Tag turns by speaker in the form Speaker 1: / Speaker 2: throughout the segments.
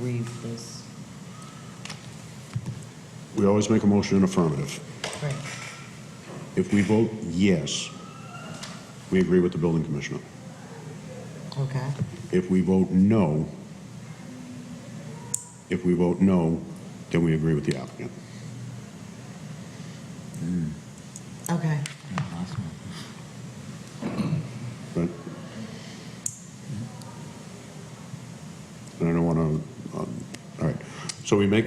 Speaker 1: read this?
Speaker 2: We always make a motion in affirmative.
Speaker 1: Right.
Speaker 2: If we vote yes, we agree with the building commissioner.
Speaker 1: Okay,
Speaker 2: If we vote no, if we vote no, then we agree with the applicant.
Speaker 1: okay.
Speaker 2: But And I don't want to, all right, so we make,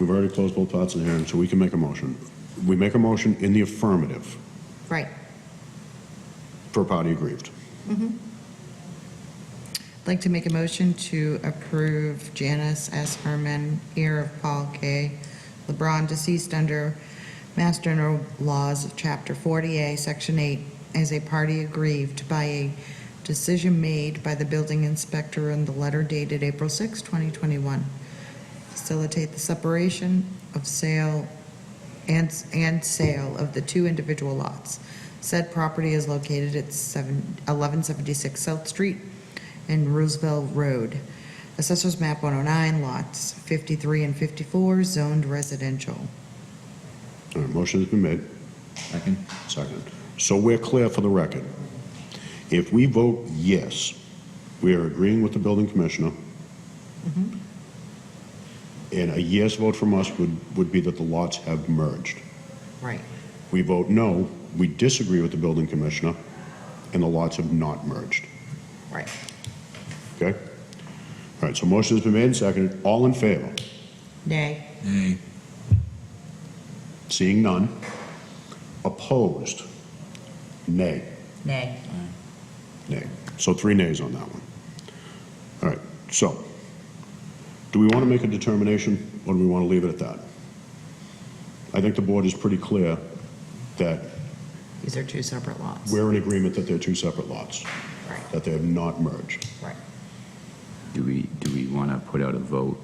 Speaker 2: we've already closed both parts of the hearing, so we can make a motion. We make a motion in the affirmative
Speaker 1: Right.
Speaker 2: for a party aggrieved.
Speaker 1: I'd like to make a motion to approve Janice S. Herman, heir of Paul K. LeBron, deceased under Mass General Laws of Chapter 40A, Section 8, as a party aggrieved by a decision made by the building inspector in the letter dated April 6, 2021. Facilitate the separation of sale and, and sale of the two individual lots. Said property is located at seven- 1176 South Street and Roosevelt Road. Assessors map 109, lots 53 and 54, zoned residential.
Speaker 2: All right, motion has been made.
Speaker 3: Second?
Speaker 2: Second. So we're clear for the record. If we vote yes, we are agreeing with the building commissioner. And a yes vote from us would, would be that the lots have merged.
Speaker 1: Right.
Speaker 2: We vote no, we disagree with the building commissioner, and the lots have not merged.
Speaker 1: Right.
Speaker 2: Okay? All right, so motion has been made and seconded. All in favor?
Speaker 1: Nay.
Speaker 3: Nay.
Speaker 2: Seeing none. Opposed? Nay.
Speaker 1: Nay.
Speaker 2: Nay. So three nays on that one. All right, so, do we want to make a determination, or do we want to leave it at that? I think the board is pretty clear that
Speaker 1: These are two separate lots.
Speaker 2: we're in agreement that they're two separate lots,
Speaker 1: Right,
Speaker 2: that they have not merged.
Speaker 1: right.
Speaker 4: Do we, do we want to put out a vote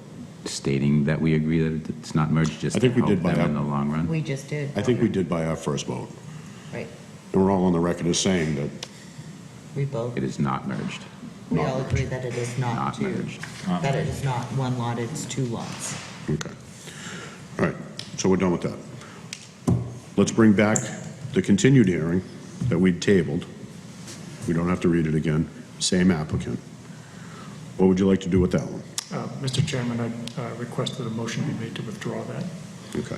Speaker 4: stating that we agree that it's not merged, just
Speaker 2: I
Speaker 4: to
Speaker 2: think we
Speaker 4: help
Speaker 2: did by
Speaker 4: them in
Speaker 2: that.
Speaker 4: the long run?
Speaker 1: We just did.
Speaker 2: I think we did by our first vote,
Speaker 1: Right.
Speaker 2: and we're all on the record as saying that,
Speaker 1: We both,
Speaker 4: It is not merged,
Speaker 1: we all agree that it is not
Speaker 4: not
Speaker 1: two.
Speaker 4: merged.
Speaker 1: That it is not one lot, it's two lots.
Speaker 2: okay. All right, so we're done with that. Let's bring back the continued hearing that we'd tabled. We don't have to read it again, same applicant. What would you like to do with that one?
Speaker 5: Uh, Mr. Chairman, I uh, request that a motion be made to withdraw that.
Speaker 2: Okay,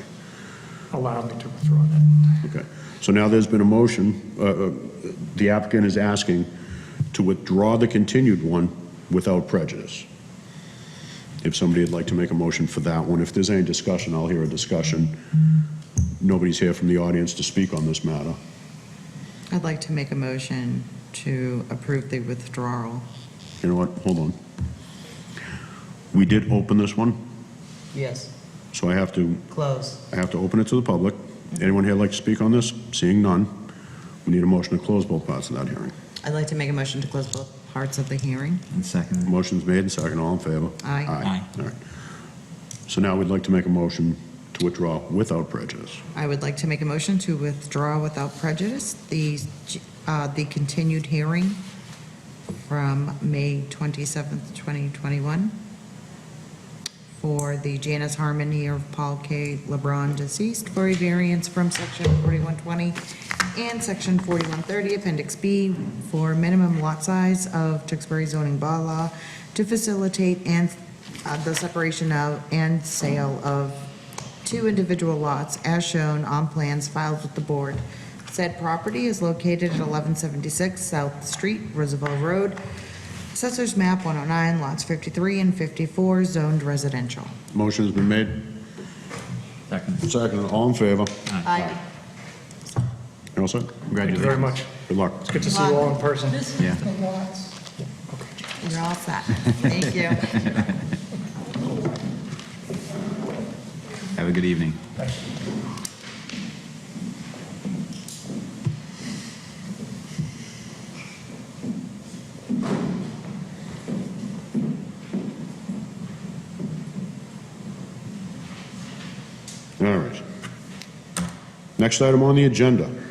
Speaker 5: Allow me to withdraw that.
Speaker 2: okay. So now there's been a motion, uh, uh, the applicant is asking to withdraw the continued one without prejudice. If somebody would like to make a motion for that one, if there's any discussion, I'll hear a discussion. Nobody's here from the audience to speak on this matter.
Speaker 1: I'd like to make a motion to approve the withdrawal.
Speaker 2: You know what, hold on. We did open this one,
Speaker 1: Yes.
Speaker 2: so I have to,
Speaker 1: Close.
Speaker 2: I have to open it to the public. Anyone here like to speak on this? Seeing none, we need a motion to close both parts of that hearing.
Speaker 1: I'd like to make a motion to close both parts of the hearing.
Speaker 3: And second?
Speaker 2: Motion's made and second, all in favor?
Speaker 1: Aye.
Speaker 2: All right. So now we'd like to make a motion to withdraw without prejudice.
Speaker 1: I would like to make a motion to withdraw without prejudice the, uh, the continued hearing from May 27th, 2021 for the Janice Harmon here of Paul K. LeBron deceased for a variance from section 4120 and section 4130, appendix B, for minimum lot size of Tewksbury zoning bylaw to facilitate and, uh, the separation of and sale of two individual lots as shown on plans filed with the board. Said property is located at 1176 South Street, Roosevelt Road, Assessors map 109, lots 53 and 54, zoned residential.
Speaker 2: Motion's been made,
Speaker 3: Second.
Speaker 2: second, all in favor?
Speaker 1: Aye.
Speaker 2: You all set?
Speaker 5: Thank you very much.
Speaker 2: Good luck.
Speaker 5: It's good to see you all in person.
Speaker 3: Yeah.
Speaker 1: You're all set. Thank you.
Speaker 4: Have a good evening.
Speaker 2: All right. Next item on the agenda.